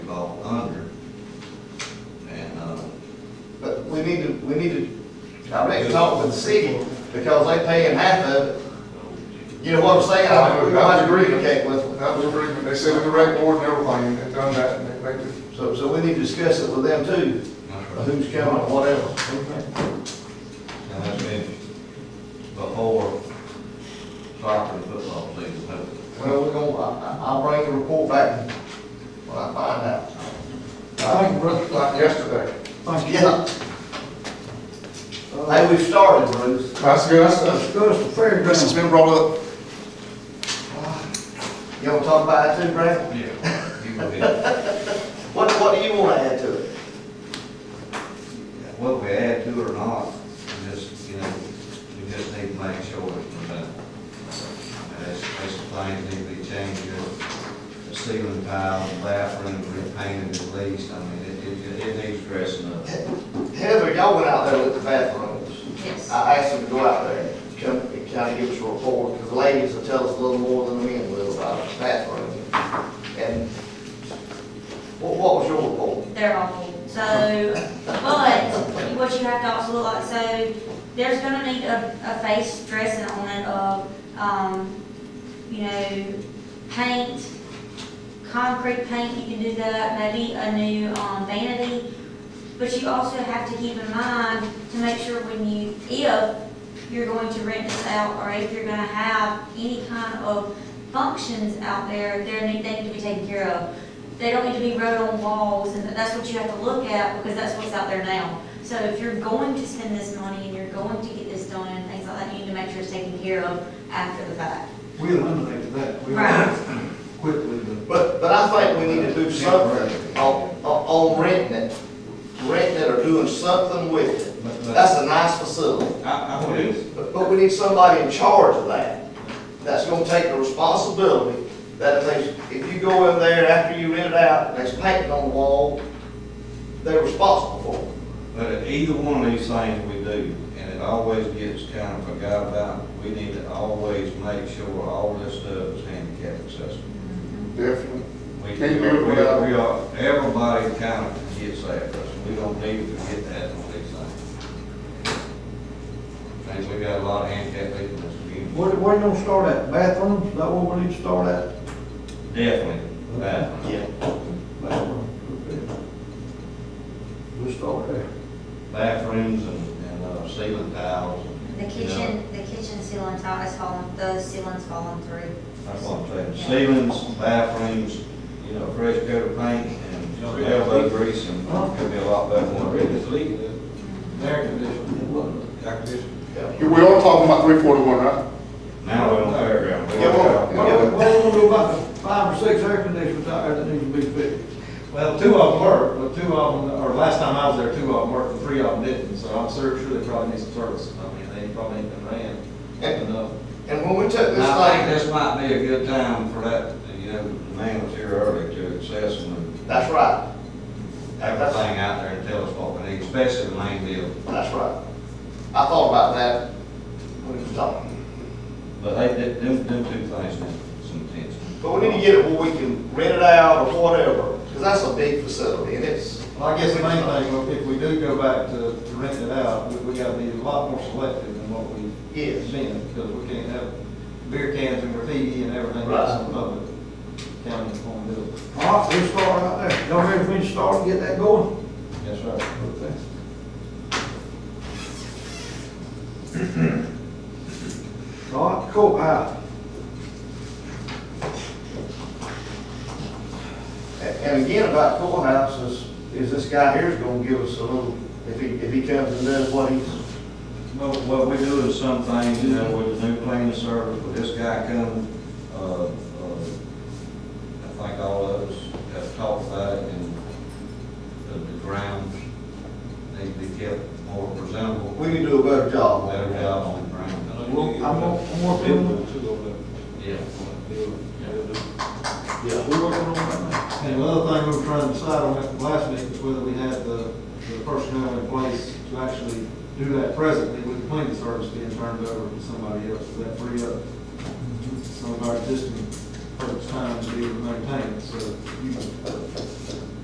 uh, we need to, we need to, I think, talk with the city, because they paying half of it. You know what I'm saying? I mean, we don't have to communicate with them. That was agreement, they said in the rec board and everything, and they done that, and they, they did. So, so we need to discuss it with them too, who's coming, whatever. And that's been before soccer and football season, hopefully. Well, we're gonna, I, I- I'll bring the report back when I find out. I think Ruth, like yesterday, Yeah. Hey, we started, Bruce. that's good, that's, that's good, it's fair. This has been brought up, You wanna talk about it too, Brad? Yeah. You go ahead. What, what do you wanna add to it? Whether we add to it or not, we just, you know, we just need to make sure it's done. There's, there's some things need to be changed, you know, the ceiling tile, bathroom, repainting the least, I mean, it, it, it needs dressing up. Heather, y'all went out there with the bathrooms. Yes. I asked them to go out there and come, and kind of give us a report, because the ladies will tell us a little more than the men will about the bathroom. And what, what was your report? They're awful. So, but what you have to also look like, so there's gonna need a, a face dressing on it of, um, you know, paint, concrete paint, you can do that, maybe a new, um, vanity. But you also have to keep in mind to make sure when you, if you're going to rent this out, or if you're gonna have any kind of functions out there, they're, they need to be taken care of they don't need to be wrote on walls, and that's what you have to look at, because that's what's out there now. So if you're going to spend this money and you're going to get this done and things like that, you need to make sure it's taken care of after the fact. We eliminated that. We Right. Quickly, the But, but I think we need to do something on, on- on renting it, renting it or doing something with it. But- but- That's a nice facility, I, I would, but, but we need somebody in charge of that, that's gonna take the responsibility, that if they, if you go in there after you rent it out, and there's paint on the wall, they're responsible for it. But either one of these things we do, and it always gets kind of forgot about, we need to always make sure all this stuff is handicap accessible. definitely. We, Can't do it we without- are, we are, everybody kind of forgets that, but we don't need to forget that on these things. And we got a lot of handicap people in this community, Where, where you gonna start at? Bathrooms? Is that where we need to start at? definitely, that. Yeah. Bathroom. okay. We'll start there. bathrooms and, and uh, ceiling tiles, The kitchen, the kitchen ceiling tile is falling, the ceiling's falling through. that's what I'm saying, ceilings, bathrooms, you know, fresh coat of paint and elbow grease and it could be a lot better than what it is. Air conditioning. It wasn't. Air conditioning. You- We are talking about three forty-one, right? Now we're on the fairground. Yeah, well, What, what we gonna do about the five or six air conditioners out there that need to be fixed? Well, two of them worked, but two of them, or last time I was there, two of them worked and three of them didn't, so I'm sure, sure they probably need some service. I mean, they probably ain't been ran And, enough. and when we took this I think thing, this might be a good time for that, you know, the man was here earlier to assess and that's right, everything out there and tell us what we need, especially the main deal. that's right. I thought about that when we was talking, But they, did- them, them two things need some attention. but we need to get it where we can rent it out or whatever, because that's a big facility, and it's. Well, I guess the main thing, well, if we do go back to to rent it out, we, we gotta be a lot more selective than what we've Yes. been, because we can't have beer cans and graffiti and everything Right. else in public. County on building. All right, we'll start out there. uh, Y'all ready for me to start and get that going? Yes, right. Okay. All right, courthouse. And- And again, about courthouse is, is this guy here is gonna give us a little, if he, if he comes and does what he's, Well, what we do is some things, you know, with the new cleaning service, with this guy coming, uh, uh, I think all of us have talked about it, and the, the grounds need to be kept more presentable. we can do a better job. Better job on the ground. I'm gonna, I'm working on, Yeah. Yeah. we're working on that now. And the other thing we were trying to decide on at the last meeting was whether we had the, the personnel in place to actually do that presently with the cleaning service being turned over to somebody else, so that free up some of our existing folks' time to be able to maintain it, so you,